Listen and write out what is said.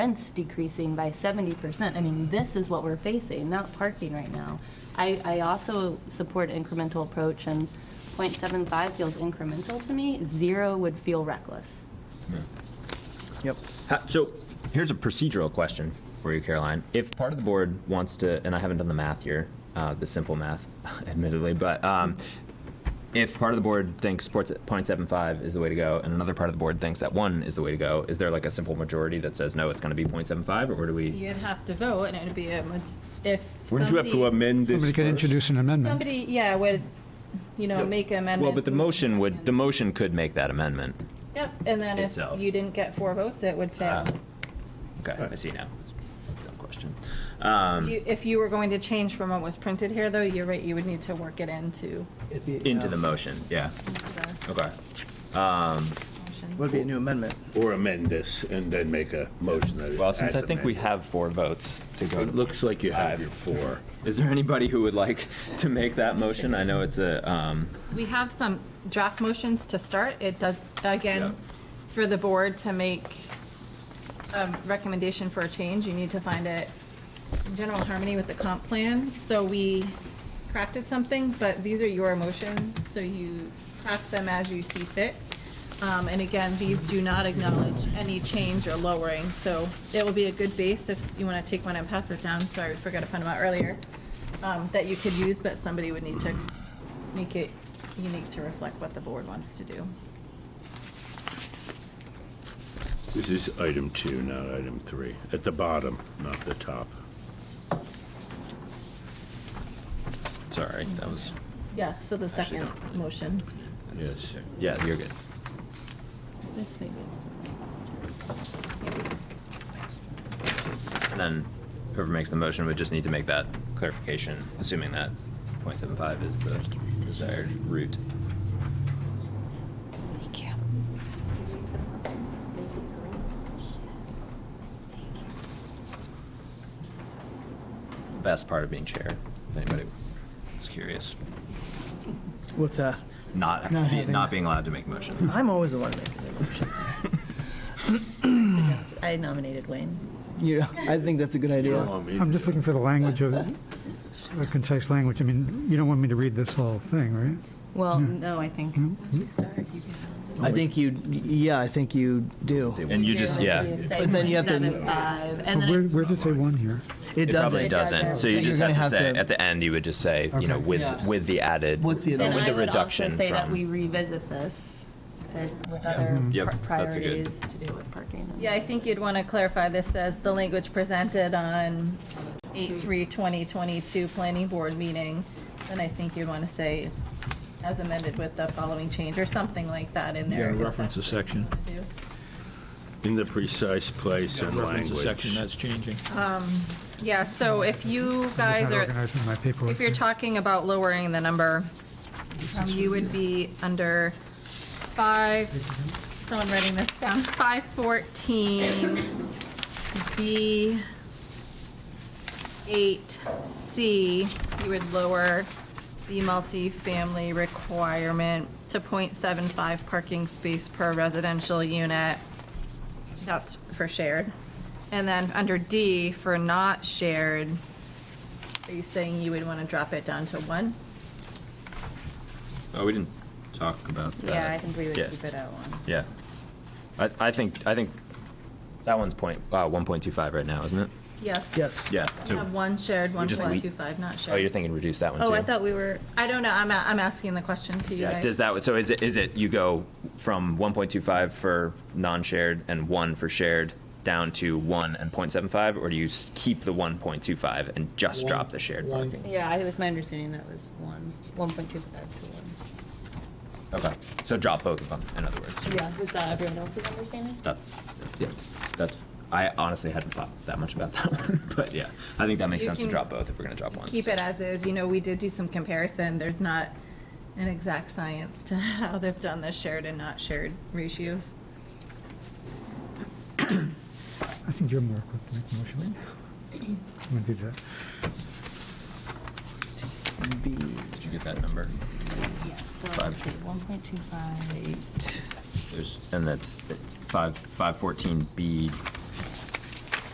rents decreasing by seventy percent. I mean, this is what we're facing, not parking right now. I, I also support incremental approach and 0.75 feels incremental to me. Zero would feel reckless. Yep. Ha- So here's a procedural question for you, Caroline. If part of the board wants to, and I haven't done the math here, uh, the simple math, admittedly, but um, if part of the board thinks sports at 0.75 is the way to go, and another part of the board thinks that one is the way to go, is there like a simple majority that says no, it's going to be 0.75, or do we? You'd have to vote, and it'd be a, ma- if Wouldn't you have to somebody- amend this Somebody could first? introduce an amendment. Somebody, yeah, would, you know, make an amendment. Well, but the motion would, the motion could make that amendment. Yep, and then if itself. Ah, you didn't get four votes, it would fail. Okay, I see now. It's a dumb question. Um, You- If you were going to change from what was printed here, though, you're right, you would need to work it into Into um, the motion, yeah. the Okay. motion. Would be a new amendment. Or amend this and then make a motion that it Well, since I has think we amended. have four votes to go It looks like you have your four. Is there anybody who would like to make that motion? I know it's a, um, We have some draft motions to start. It does, Yeah. again, for the board to make a recommendation for a change, you need to find it in general harmony with the comp plan. So we crafted something, but these are your motions, so you craft them as you see fit. Um, And again, these do not acknowledge any change or lowering, so it will be a good base if you want to take one and pass it down. Sorry, I forgot to find them out earlier, um, that you could use, but somebody would need to make it unique to reflect what the board wants to do. This is item two, not item three. At the bottom, not the top. sorry, that was, Yeah, so the second motion. Yes. yeah, you're good. This may be- And then whoever makes the motion would just need to make that clarification, assuming that 0.75 is the desired route. The Best part of being chair, if anybody is curious. What's that? Not, Not be- having not it. being allowed to make motions. I'm always the one making the motions. I nominated Wayne. Yeah, I think that's a good idea. Um, I'm just looking for the language of, a concise language. I mean, you don't want me to read this whole thing, right? Well, Hmm. no, I think. I think you, yeah, I think you do. And you just, yeah, But then you have to- And But then where, it's- where does it say one here? It it probably doesn't. doesn't. So you you're just gonna have to have say, to- at the end, you would just say, you know, Okay. with, Yeah. with the added. What's the other Then With I the would also reduction say that from- we revisit this uh, with other Mm-hmm. Yep, pri- that's a priorities good- to do with parking. and- Yeah, I think you'd want to clarify this as the language presented on 8/3/2022 Planning Board meeting. And I think you'd want to say as amended with the following change or something like that in there. Yeah, reference a section. Do. In the precise place and Reference a section language. that's changing. Yeah, so if you I'm just guys not are, organizing my paperwork. If you're talking about lowering the number, um, you would be under five, someone writing this down, five fourteen, B, eight, C, you would lower the multifamily requirement to 0.75 parking space per residential unit. That's for shared. And then under D, for not shared, are you saying you would want to drop it down to one? Oh, we didn't talk about that. Yeah, I think we would Yeah. keep it at one. Yeah. I, I think, I think that one's point, uh, 1.25 right now, isn't it? Yes. Yes. Yeah. You So, Have one shared, one just point leave- two five, not oh, you're shared. thinking reduce that one too? Oh, I thought we were, I don't know, I'm, a- I'm asking the question to you Yeah, does guys. that, so is it, is it, you go from 1.25 for non-shared and one for shared down to one and 0.75? Or do you s- keep the 1.25 and just drop the shared parking? yeah, it was my understanding that was one, 1.25 to 1. Okay, so drop both of them, in other words. Yeah, was that everyone else's understanding? That's, yeah, that's, I honestly hadn't thought that much about that one, but yeah, I think that makes You sense to can drop both if we're gonna drop one. Keep so. it as is, you know, we did do some comparison, there's not an exact science to how they've done the shared and not shared ratios. I think you're more equipped to make the motion. right now. I'm gonna do that. B. Did you get that number? Yeah, so let's Five. see, 1.25. There's, and that's, it's five, five fourteen B